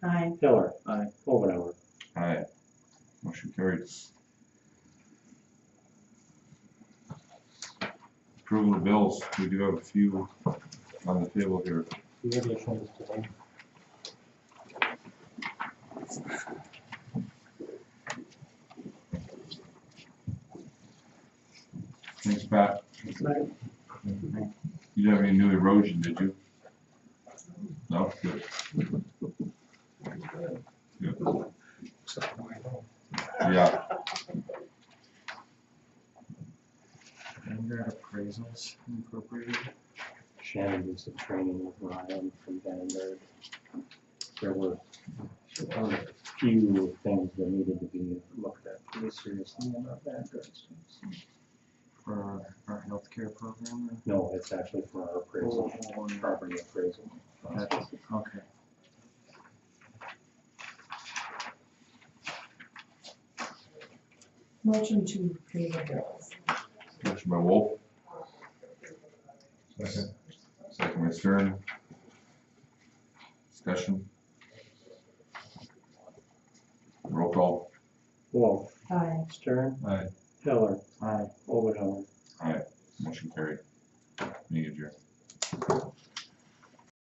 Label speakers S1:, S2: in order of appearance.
S1: Aye.
S2: Miller.
S3: Aye.
S2: Omenauer.
S4: Aye. Motion carried. Approval of bills, we do have a few on the table here.
S5: Do you have the changes today?
S4: Thanks, Pat. You didn't have any new erosion, did you? No, good. Good. Yeah,
S3: And we got appraisals incorporated.
S2: Shannon did some training with Ryan from Vandenberg. There were a few things that needed to be looked at pretty seriously about that.
S3: for our healthcare program.
S2: No, it's actually for our appraisal, property appraisal.
S3: That's- Okay.
S1: Motion to pay the bills.
S4: motion by Wolf. Second. Second by Stern. Discussion. Roll call.
S2: Wolf,
S1: Aye.
S2: Stern,
S4: Aye.
S2: Heller,
S3: Aye.
S2: Omenauer.
S4: Motion carried.